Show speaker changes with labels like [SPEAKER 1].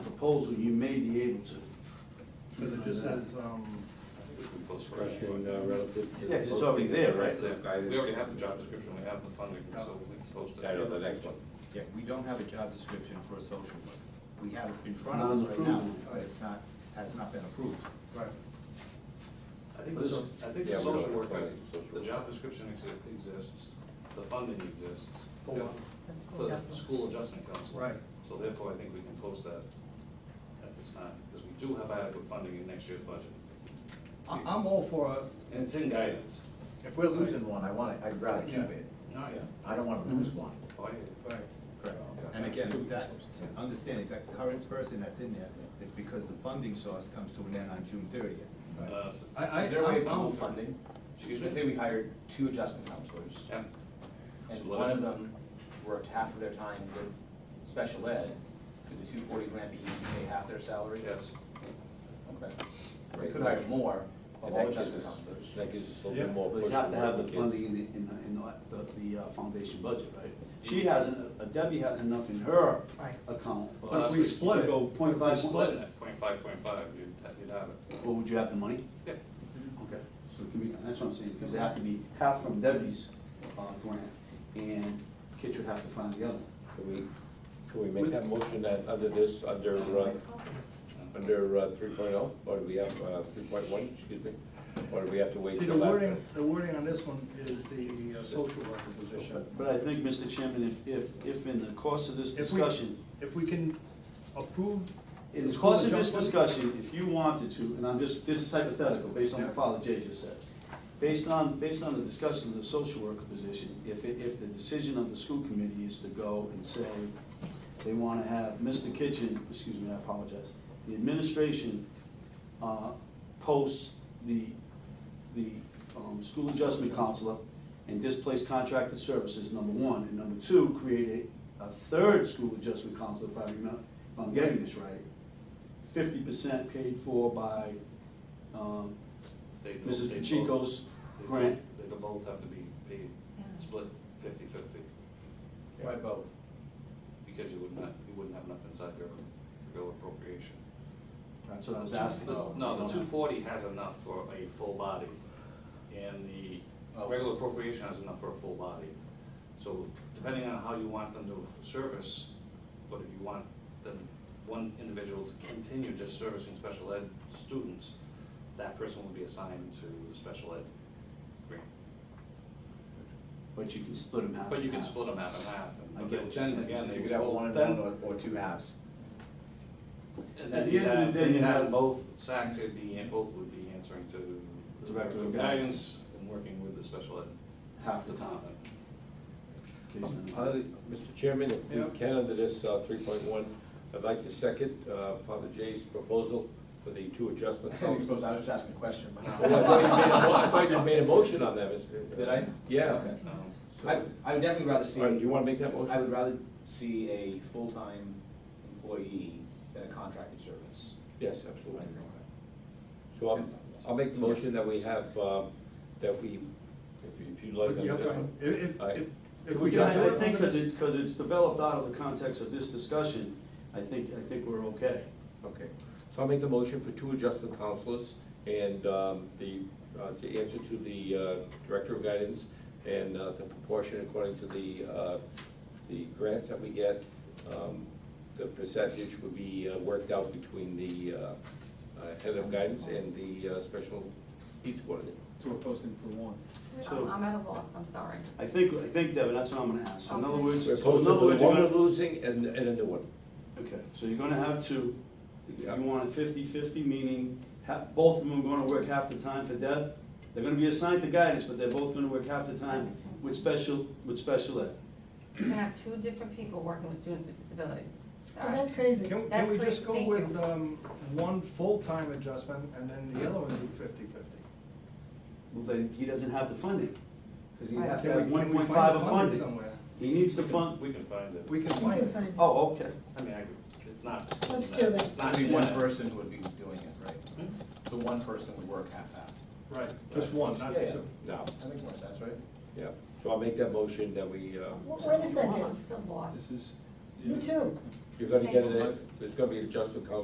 [SPEAKER 1] proposal, you may be able to.
[SPEAKER 2] Because it just says, um,
[SPEAKER 3] Discretion uh, relative to.
[SPEAKER 1] Yeah, 'cause it's already there, right?
[SPEAKER 3] That's the guidance.
[SPEAKER 4] We already have the job description, we have the funding, so we can post it.
[SPEAKER 3] I know, the next one.
[SPEAKER 5] Yeah, we don't have a job description for a social worker. We have it in front of us right now,
[SPEAKER 1] Non-approved.
[SPEAKER 5] but it's not, has not been approved.
[SPEAKER 2] right,
[SPEAKER 4] I think the, so- I think
[SPEAKER 3] Yeah,
[SPEAKER 4] the
[SPEAKER 3] we
[SPEAKER 4] social
[SPEAKER 3] don't have
[SPEAKER 4] worker,
[SPEAKER 3] funding, social
[SPEAKER 4] the
[SPEAKER 3] worker.
[SPEAKER 4] job description exi- exists, the funding exists.
[SPEAKER 1] For what?
[SPEAKER 4] For the school adjustment council.
[SPEAKER 2] right.
[SPEAKER 4] So therefore, I think we can post that at this time, because we do have adequate funding in next year's budget.
[SPEAKER 2] I, I'm all for, a-
[SPEAKER 4] And it's in guidance.
[SPEAKER 5] If we're losing one, I want it, I'd rather keep it.
[SPEAKER 4] Oh, yeah.
[SPEAKER 5] I don't wanna lose one.
[SPEAKER 4] Oh, yeah.
[SPEAKER 2] right,
[SPEAKER 5] Correct.
[SPEAKER 4] Okay.
[SPEAKER 5] And again, that, understanding that current person that's in there is because the funding source comes to an end on June thirtieth.
[SPEAKER 4] Uh,
[SPEAKER 2] I, I,
[SPEAKER 6] Is there a way of
[SPEAKER 2] I'm
[SPEAKER 6] double
[SPEAKER 2] I'm for,
[SPEAKER 6] funding?
[SPEAKER 4] Excuse
[SPEAKER 6] Let's
[SPEAKER 4] me?
[SPEAKER 6] say we hired two adjustment counselors,
[SPEAKER 4] Yeah.
[SPEAKER 6] and
[SPEAKER 4] So
[SPEAKER 6] one
[SPEAKER 4] let-
[SPEAKER 6] of them worked half of their time with special ed, could the two forty grant be used to pay half their salary?
[SPEAKER 4] Yes.
[SPEAKER 6] Okay. We could hire more, of all adjustment counselors.
[SPEAKER 3] That gives us a
[SPEAKER 2] Yeah.
[SPEAKER 3] little more
[SPEAKER 1] But
[SPEAKER 3] push.
[SPEAKER 1] you have to have the
[SPEAKER 3] we can-
[SPEAKER 1] funding in the, in the, in the- the, the uh, foundation budget, right? She has, en- uh, Debbie has enough in her
[SPEAKER 7] Right.
[SPEAKER 1] account,
[SPEAKER 4] But
[SPEAKER 1] but
[SPEAKER 4] if
[SPEAKER 1] if
[SPEAKER 4] we
[SPEAKER 1] we split it, go point five,
[SPEAKER 4] Split it at point five, point five, you'd, ha- you'd have it.
[SPEAKER 1] Well, would you have the money?
[SPEAKER 4] Yeah.
[SPEAKER 1] Okay, so it can be, that's what I'm saying, because it have to be half from Debbie's, uh, grant, and Kitch would have to find the other.
[SPEAKER 3] Can we, can we make that motion that under this, under, uh, under uh, 3.0, or do we have uh, three point one, excuse me? Or do we have to wait
[SPEAKER 2] see,
[SPEAKER 3] till
[SPEAKER 2] the
[SPEAKER 3] after?
[SPEAKER 2] wording, the wording on this one is the uh, social worker position.
[SPEAKER 1] But I think, Mr. Chairman, if, if, if in the course of this
[SPEAKER 2] If we-
[SPEAKER 1] discussion,
[SPEAKER 2] If we can approve.
[SPEAKER 1] in the course of this
[SPEAKER 2] School adjustment-
[SPEAKER 1] discussion, if you wanted to, and I'm just, this is hypothetical, based on what Father Jay just said. Based on, based on the discussion of the social worker position, if, it- if the decision of the school committee is to go and say, they wanna have Mr. Kitchen, excuse me, I apologize, the administration, uh, posts the, the, um, school adjustment counselor and displaced contracted services, number one, and number two, create a, a third school adjustment counselor, if I remember, if I'm getting this right, fifty percent paid for by, um,
[SPEAKER 4] They do-
[SPEAKER 1] Mrs.
[SPEAKER 4] they both-
[SPEAKER 1] Pacheco's
[SPEAKER 4] they
[SPEAKER 1] grant.
[SPEAKER 4] both- They do both have to be paid, split fifty-fifty,
[SPEAKER 6] Why both?
[SPEAKER 4] because you wouldn't have, you wouldn't have enough inside your, your appropriation.
[SPEAKER 1] That's what I was asking.
[SPEAKER 4] The- No, the two forty has enough for a full body, and the
[SPEAKER 6] Oh.
[SPEAKER 4] regular appropriation has enough for a full body. So depending on how you want them to service, but if you want them, one individual to continue just servicing special ed students, that person will be assigned to the special ed grant.
[SPEAKER 1] But you can split them half.
[SPEAKER 4] But you
[SPEAKER 1] and
[SPEAKER 4] can
[SPEAKER 1] half.
[SPEAKER 4] split them half and half, and
[SPEAKER 1] I get
[SPEAKER 4] but then
[SPEAKER 1] what you're saying.
[SPEAKER 4] again, they
[SPEAKER 5] You
[SPEAKER 4] would
[SPEAKER 5] could have
[SPEAKER 4] both-
[SPEAKER 5] one and
[SPEAKER 4] then-
[SPEAKER 5] one or, or two halves.
[SPEAKER 4] And
[SPEAKER 1] At
[SPEAKER 4] then
[SPEAKER 1] the
[SPEAKER 4] you
[SPEAKER 1] end of the
[SPEAKER 4] have,
[SPEAKER 1] day,
[SPEAKER 4] then
[SPEAKER 1] you
[SPEAKER 4] you
[SPEAKER 1] have-
[SPEAKER 4] have both, SACs would be, and both would be answering to the
[SPEAKER 1] Director
[SPEAKER 4] Director
[SPEAKER 1] of
[SPEAKER 4] of Guidance and working with the special ed.
[SPEAKER 1] Half the time. Based on-
[SPEAKER 3] Uh, Mr. Chairman, if
[SPEAKER 2] Yeah.
[SPEAKER 3] we can, under this uh, three point one, I'd like to second uh, Father Jay's proposal for the two adjustment
[SPEAKER 6] I
[SPEAKER 3] clauses.
[SPEAKER 6] suppose I was just asking a question,
[SPEAKER 3] Oh, I
[SPEAKER 6] but.
[SPEAKER 3] thought you made a mo- I thought you made a motion on that, Mr.
[SPEAKER 6] Did I?
[SPEAKER 3] Yeah.
[SPEAKER 6] Okay.
[SPEAKER 4] Um,
[SPEAKER 3] So-
[SPEAKER 6] I, I would definitely rather see.
[SPEAKER 3] All right, do you wanna make that motion?
[SPEAKER 6] I would rather see a full-time employee than a contracted service.
[SPEAKER 3] Yes, absolutely. So I'll, I'll make the motion that we have, um, that we, if if you'd like,
[SPEAKER 2] Yeah,
[SPEAKER 3] on
[SPEAKER 2] go
[SPEAKER 3] this
[SPEAKER 2] ahead.
[SPEAKER 3] one.
[SPEAKER 2] If, if-
[SPEAKER 3] All right.
[SPEAKER 2] if, if
[SPEAKER 1] If
[SPEAKER 2] we
[SPEAKER 1] we just,
[SPEAKER 2] just do
[SPEAKER 1] I
[SPEAKER 2] it
[SPEAKER 1] think,
[SPEAKER 2] under
[SPEAKER 1] because
[SPEAKER 2] this,
[SPEAKER 1] it's, because it's developed out of the context of this discussion, I think, I think we're okay.
[SPEAKER 3] Okay, so I'll make the motion for two adjustment counselors and um, the, uh, to answer to the uh, Director of Guidance and uh, the proportion according to the, uh, the grants that we get, um, the percentage would be uh, worked out between the uh, uh, Head of Guidance and the uh, Special Needs Coordinator.
[SPEAKER 5] So we're posting for one.
[SPEAKER 1] So-
[SPEAKER 7] I'm I'm at a loss, I'm sorry.
[SPEAKER 1] I think, I think, Devin, that's what I'm gonna ask. So in other words, so
[SPEAKER 3] We're
[SPEAKER 1] in other words,
[SPEAKER 3] posting for
[SPEAKER 1] you're
[SPEAKER 3] one
[SPEAKER 1] gonna-
[SPEAKER 3] we're losing and, and a new one.
[SPEAKER 1] Okay, so you're gonna have two, you
[SPEAKER 3] Yeah.
[SPEAKER 1] want it fifty-fifty, meaning ha- both of them are gonna work half the time for Deb. They're gonna be assigned to guidance, but they're both gonna work half the time with special, with special ed.
[SPEAKER 7] You can have two different people working with students with disabilities.
[SPEAKER 8] Oh, that's crazy.
[SPEAKER 2] can, can
[SPEAKER 7] That's
[SPEAKER 2] we
[SPEAKER 7] great,
[SPEAKER 2] just go
[SPEAKER 7] thank
[SPEAKER 2] with,
[SPEAKER 7] you.
[SPEAKER 2] um, one full-time adjustment and then the other one do fifty-fifty?
[SPEAKER 1] Well, then, he doesn't have the funding, because he'd
[SPEAKER 7] Right.
[SPEAKER 1] have to
[SPEAKER 2] Can
[SPEAKER 1] have
[SPEAKER 2] we- can
[SPEAKER 1] one
[SPEAKER 2] we
[SPEAKER 1] point
[SPEAKER 2] find
[SPEAKER 1] five
[SPEAKER 2] the
[SPEAKER 1] of funding.
[SPEAKER 2] Somewhere,
[SPEAKER 1] He needs to fund,
[SPEAKER 4] We can find it.
[SPEAKER 2] we can
[SPEAKER 8] You
[SPEAKER 2] find
[SPEAKER 8] can
[SPEAKER 2] it.
[SPEAKER 8] find it.
[SPEAKER 1] oh, okay.
[SPEAKER 4] I mean, I could, it's not.
[SPEAKER 8] Let's do that.
[SPEAKER 4] It's not
[SPEAKER 6] Only one
[SPEAKER 4] bad.
[SPEAKER 6] person would be doing it, right?
[SPEAKER 4] Hmm?
[SPEAKER 6] So one person would work half-half.
[SPEAKER 2] Right, just one, not
[SPEAKER 6] Yeah, yeah.
[SPEAKER 2] two.
[SPEAKER 3] Now,
[SPEAKER 6] That makes more sense, right?
[SPEAKER 3] yeah, so I'll make that motion that we, uh,
[SPEAKER 8] Wait a
[SPEAKER 7] I'm
[SPEAKER 8] second.
[SPEAKER 7] still lost.
[SPEAKER 5] This is,
[SPEAKER 3] You're gonna get it, at- there's gonna be an adjustment coun-